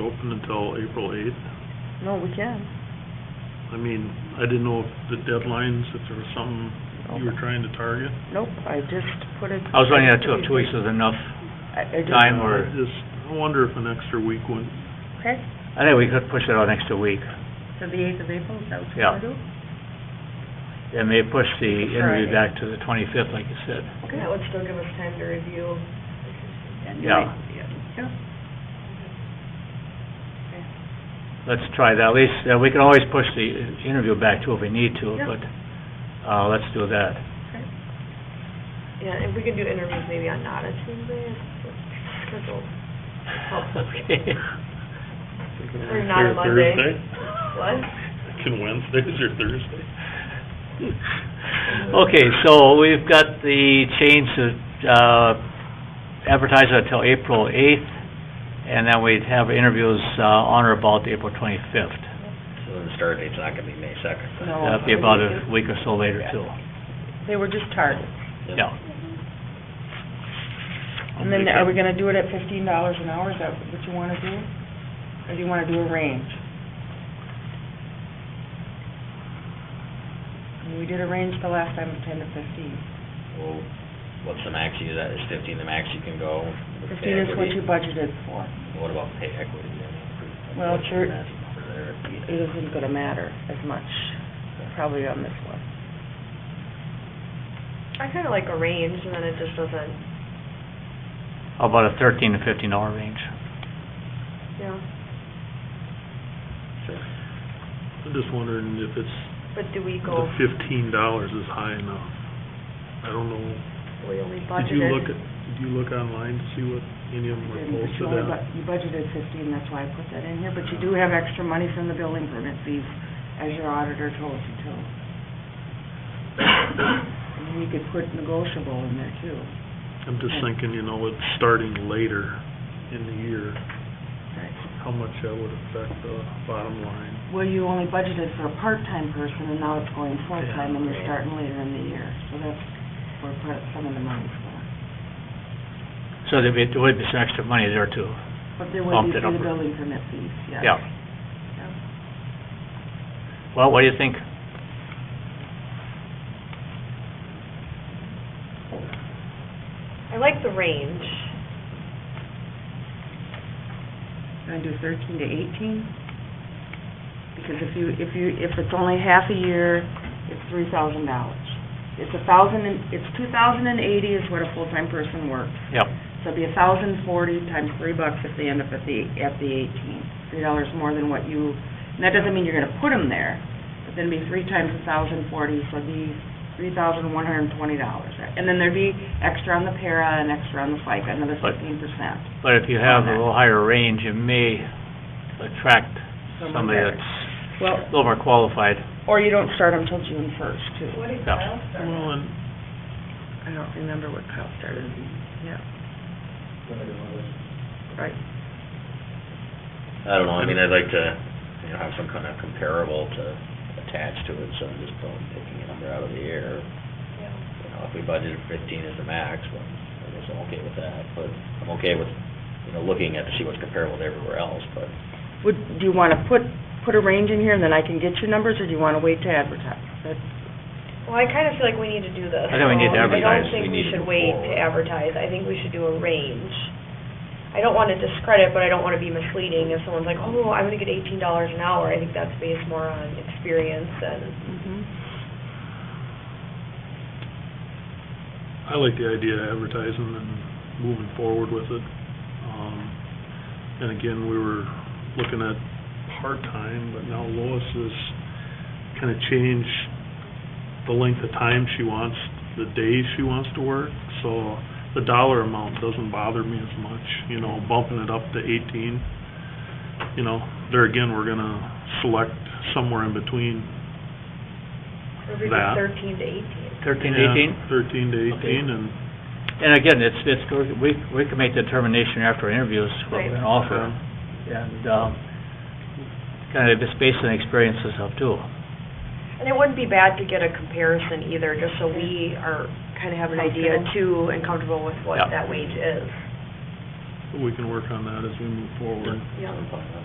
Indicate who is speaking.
Speaker 1: open until April eighth.
Speaker 2: No, we can.
Speaker 1: I mean, I didn't know if the deadlines, if there was something you were trying to target.
Speaker 2: Nope, I just put it.
Speaker 3: I was running out of two weeks was enough.
Speaker 2: I- I just-
Speaker 3: Time or-
Speaker 1: I Just, I wonder if an extra week would,
Speaker 4: Okay,
Speaker 3: I think we could push it out an extra week.
Speaker 4: so the eighth of April, is that what you
Speaker 3: Yeah.
Speaker 4: want to do?
Speaker 3: And they push the interview
Speaker 4: Friday.
Speaker 3: back to the twenty-fifth, like you said.
Speaker 5: That would still give us time to review.
Speaker 4: And
Speaker 3: Yeah.
Speaker 4: like- Yeah.
Speaker 3: Let's try that, at least, uh, we can always push the uh, interview back too if we need to,
Speaker 4: Yeah.
Speaker 3: but, uh, let's do that.
Speaker 5: Yeah, if we could do interviews maybe on not a Tuesday, it's- it's scheduled.
Speaker 3: Okay.
Speaker 5: Or not a Monday.
Speaker 1: Thursday?
Speaker 5: What?
Speaker 1: Can Wednesdays or Thursday?
Speaker 3: Okay, so we've got the change to, uh, advertise it until April eighth, and then we'd have interviews, uh, on or about April twenty-fifth.
Speaker 6: So the start date's not gonna be May second.
Speaker 2: No.
Speaker 3: That'd be about a week or so later too.
Speaker 2: They were just targets.
Speaker 3: Yeah.
Speaker 2: And then are we gonna do it at fifteen dollars an hour? Is that what you wanna do? Or do you wanna do a range? I mean, We did a range the last time, of ten to fifteen.
Speaker 6: Well, what's the max you, that is fifteen, the max you can go? with pay
Speaker 2: Fifteen is what
Speaker 6: equity?
Speaker 2: you budgeted for.
Speaker 6: What about pay equity? I mean,
Speaker 2: Well,
Speaker 6: what's
Speaker 2: sure.
Speaker 6: the maximum for there?
Speaker 2: It isn't gonna matter as much, probably on this one.
Speaker 5: I kinda like a range and then it just doesn't,
Speaker 3: How About a thirteen to fifteen dollar range.
Speaker 5: you know,
Speaker 1: I'm just wondering if it's,
Speaker 5: but do we
Speaker 1: the
Speaker 5: go,
Speaker 1: fifteen dollars is high enough. I don't know.
Speaker 5: we only budgeted?
Speaker 1: Did you look at, did you look online to see what any of them were
Speaker 2: But You
Speaker 1: posted
Speaker 2: only
Speaker 1: at?
Speaker 2: bu- you budgeted fifteen, that's why I put that in here, but you do have extra money from the building permit fees, as your auditor told you to. And then you could put negotiable in there too.
Speaker 1: I'm just thinking, you know, with starting later in the year, how much that would affect the bottom line.
Speaker 2: Well, you only budgeted for a part-time person, and now it's going full-time, and you're
Speaker 6: Yeah.
Speaker 2: starting later in the year, so that's where part- some of the money's going.
Speaker 3: So there'd be, there would be some extra money there too.
Speaker 2: But there would
Speaker 3: Bumped
Speaker 2: be
Speaker 3: it
Speaker 2: for the
Speaker 3: up.
Speaker 2: building permit fees, yes.
Speaker 3: Yeah. Well, what do you think?
Speaker 5: I like the range.
Speaker 2: Gonna do thirteen to eighteen? Because if you, if you, if it's only half a year, it's three thousand dollars. It's a thousand and, it's two thousand and eighty is what a full-time person works.
Speaker 3: Yep.
Speaker 2: So it'd be a thousand forty times three bucks if they end up at the, at the eighteen. Three dollars more than what you, and that doesn't mean you're gonna put them there, but then it'd be three times a thousand forty, so it'd be three thousand one hundred and twenty dollars. And then there'd be extra on the para and extra on the FICA, another
Speaker 3: But-
Speaker 2: fifteen percent.
Speaker 3: But if you have a
Speaker 2: Okay.
Speaker 3: little higher range, it may attract
Speaker 2: Someone
Speaker 3: somebody
Speaker 2: better.
Speaker 3: that's
Speaker 2: Well,
Speaker 3: a little more qualified.
Speaker 2: Or you don't start them till June first, too.
Speaker 4: What did
Speaker 3: Yeah.
Speaker 4: Kyle start?
Speaker 1: Well, and
Speaker 2: I don't remember what Kyle started, yeah. Right.
Speaker 6: I don't know, I mean, I'd like to, you know, have some kind of comparable to attach to it, so I'm just don't picking a number out of the air. You know, if we budgeted fifteen as the max, well, I guess I'm okay with that, but I'm okay with, you know, looking at to see what's comparable to everywhere else, but
Speaker 2: Would, do you wanna put, put a range in here and then I can get your numbers, or do you wanna wait to advertise? That's-
Speaker 5: Well, I kinda feel like we need to do this.
Speaker 3: I think we need to
Speaker 5: so I
Speaker 3: advertise.
Speaker 5: don't think we
Speaker 6: We need to
Speaker 5: should
Speaker 6: move
Speaker 5: wait to
Speaker 6: forward.
Speaker 5: advertise, I think we should do a range. I don't wanna discredit, but I don't wanna be misleading, if someone's like, oh, I'm gonna get eighteen dollars an hour, I think that's based more on experience and
Speaker 2: mm-hmm.
Speaker 1: I like the idea of advertising and moving forward with it. Um, and again, we were looking at part-time, but now Lois has kinda changed the length of time she wants, the days she wants to work, so the dollar amount doesn't bother me as much, you know, bumping it up to eighteen. You know, there again, we're gonna select somewhere in between.
Speaker 5: maybe
Speaker 1: That.
Speaker 5: thirteen to eighteen.
Speaker 3: Thirteen,
Speaker 1: Yeah,
Speaker 3: eighteen?
Speaker 1: Thirteen to eighteen, and
Speaker 3: And again, it's, it's, we, we can make the determination after interviews, what we're
Speaker 5: Right.
Speaker 3: gonna offer.
Speaker 1: uh,
Speaker 3: And, um, kind of just based on experiences of too.
Speaker 5: And it wouldn't be bad to get a comparison either, just so we are, kinda have an idea
Speaker 2: Comfortable.
Speaker 5: too, and comfortable with what
Speaker 3: Yeah.
Speaker 5: that wage is.
Speaker 7: But we can work on that as we move forward.
Speaker 8: Yeah.
Speaker 1: I'm fine with that.